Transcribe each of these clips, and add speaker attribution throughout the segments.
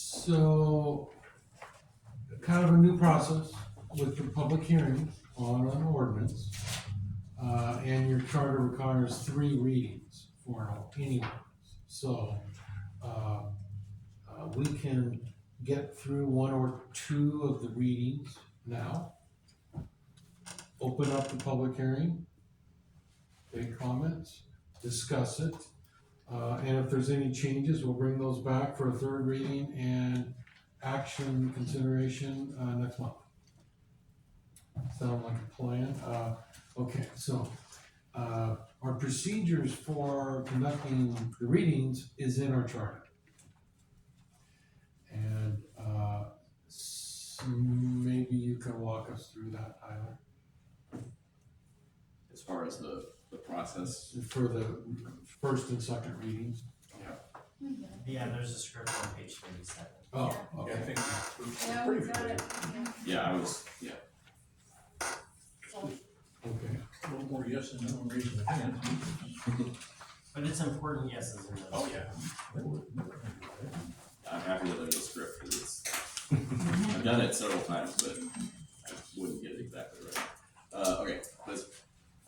Speaker 1: So, kind of a new process with the public hearing on an ordinance. Uh, and your charter requires three readings for any ordinance. So, uh, uh, we can get through one or two of the readings now. Open up the public hearing, make comments, discuss it, uh, and if there's any changes, we'll bring those back for a third reading and action consideration, uh, next month. Sound like a plan? Uh, okay, so, uh, our procedures for conducting the readings is in our charter. And, uh, s- maybe you can walk us through that, Tyler,
Speaker 2: as far as the, the process.
Speaker 1: for the first and second readings.
Speaker 3: Yeah, there's a script on page thirty-seven.
Speaker 1: Oh, okay.
Speaker 2: think
Speaker 4: Yeah, we got it, yeah,
Speaker 2: Yeah, I was, yeah,
Speaker 4: so,
Speaker 1: Okay,
Speaker 5: A little more yes and no reason.
Speaker 3: But it's important yeses and
Speaker 2: oh
Speaker 3: nos.
Speaker 2: yeah, I'm happy with the script, cause it's, I've done it several times, but I wouldn't get it exactly right. Uh, okay, let's,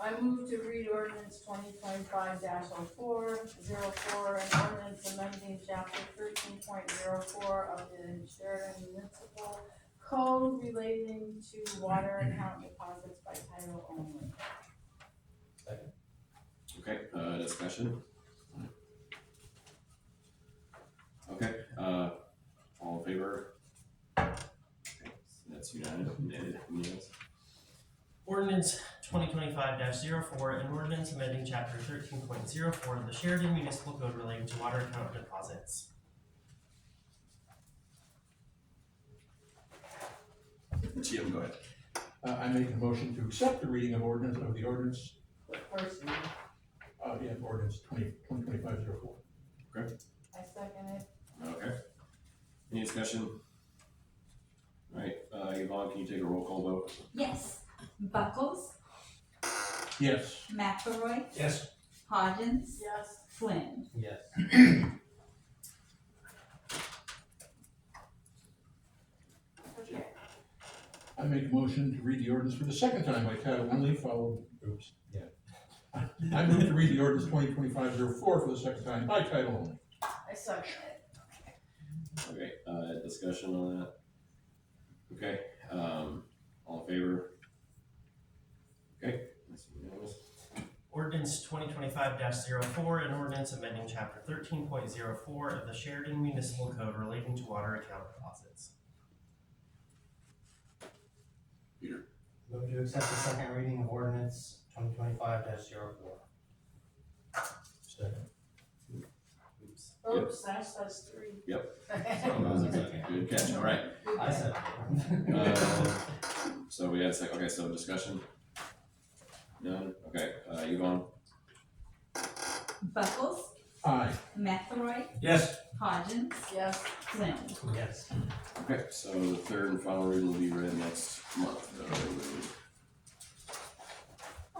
Speaker 4: I move to read ordinance twenty twenty-five oh 4 an ordinance amending chapter thirteen point zero four of the Sheridan Municipal Code relating to water and account deposits by title only.
Speaker 2: okay, uh, discussion. Okay, uh, all in favor? Okay, so That's unanimous, unanimous,
Speaker 3: Ordinance twenty twenty-five 4 an ordinance amending chapter thirteen point zero four of the Sheridan Municipal Code relating to water account deposits.
Speaker 2: Jim, go ahead.
Speaker 5: Uh, I make a motion to accept the reading of ordinance, of the ordinance,
Speaker 4: First, reading.
Speaker 5: uh, yeah, ordinance twenty, twenty twenty-five zero four.
Speaker 4: I second it,
Speaker 2: Okay. Any discussion? Alright, uh, Yvonne, can you take a roll call vote?
Speaker 6: Yes. Buckles,
Speaker 5: Yes.
Speaker 6: McElroy,
Speaker 5: Yes.
Speaker 6: Hodgins,
Speaker 4: yes,
Speaker 6: Flynn.
Speaker 3: Yes.
Speaker 4: okay,
Speaker 5: I make a motion to read the ordinance for the second time by title only, followed, oops.
Speaker 3: Yeah.
Speaker 5: I move to read the ordinance twenty twenty-five zero four for the second time by title only.
Speaker 4: I second it,
Speaker 2: Okay, uh, discussion on that? Okay, um, all in favor? Okay, that's unanimous.
Speaker 3: Ordinance twenty twenty-five 4 an ordinance amending chapter thirteen point zero four of the Sheridan Municipal Code relating to water account deposits.
Speaker 2: Peter.
Speaker 3: Move to accept the second reading of ordinance twenty twenty-five 4
Speaker 5: Second.
Speaker 3: Oops.
Speaker 4: oops, that's, that's Oh, three.
Speaker 2: Oh, that was exciting. Good catch, alright,
Speaker 3: I said.
Speaker 2: uh, so we had a sec, okay, so discussion? None, okay, uh, Yvonne,
Speaker 6: Buckles,
Speaker 5: Aye.
Speaker 6: McElroy,
Speaker 5: Yes.
Speaker 6: Hodgins,
Speaker 4: Yes,
Speaker 6: Flynn.
Speaker 3: Yes.
Speaker 2: okay, so the third and final reading will be read next month. Uh,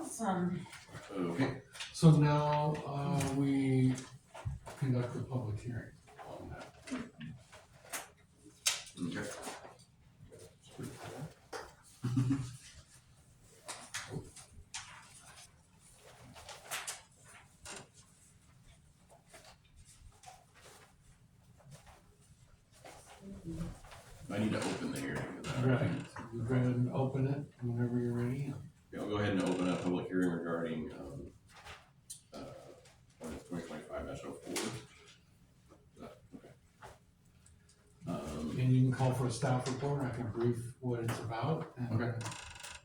Speaker 6: Awesome.
Speaker 2: Okay,
Speaker 1: so now, uh, we conduct the public hearing on that.
Speaker 2: okay. I need to open the hearing. for that.
Speaker 1: Right, you go ahead and open it whenever you're ready.
Speaker 2: Yeah, I'll go ahead and open up public hearing regarding, um, uh, ordinance twenty twenty-five dash oh four. Okay. Um,
Speaker 1: And you can call for a staff report, I can brief what it's about and.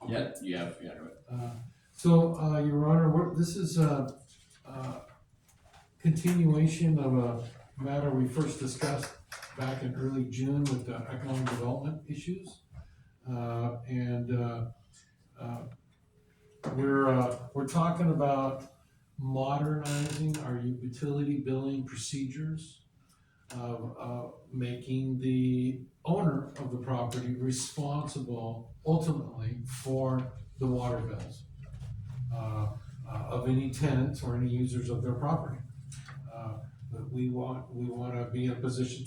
Speaker 2: yeah, you have, yeah, go
Speaker 1: Uh,
Speaker 2: ahead.
Speaker 1: So, uh, Your Honor, we're- this is a, uh continuation of a matter we first discussed back in early June with the economic development issues. Uh, and, uh, uh, we're, uh, we're talking about modernizing our utility billing procedures, uh, uh, making the owner of the property responsible ultimately for the water bills uh, uh, of any tenants or any users of their property. Uh, But we want, we want to be in a position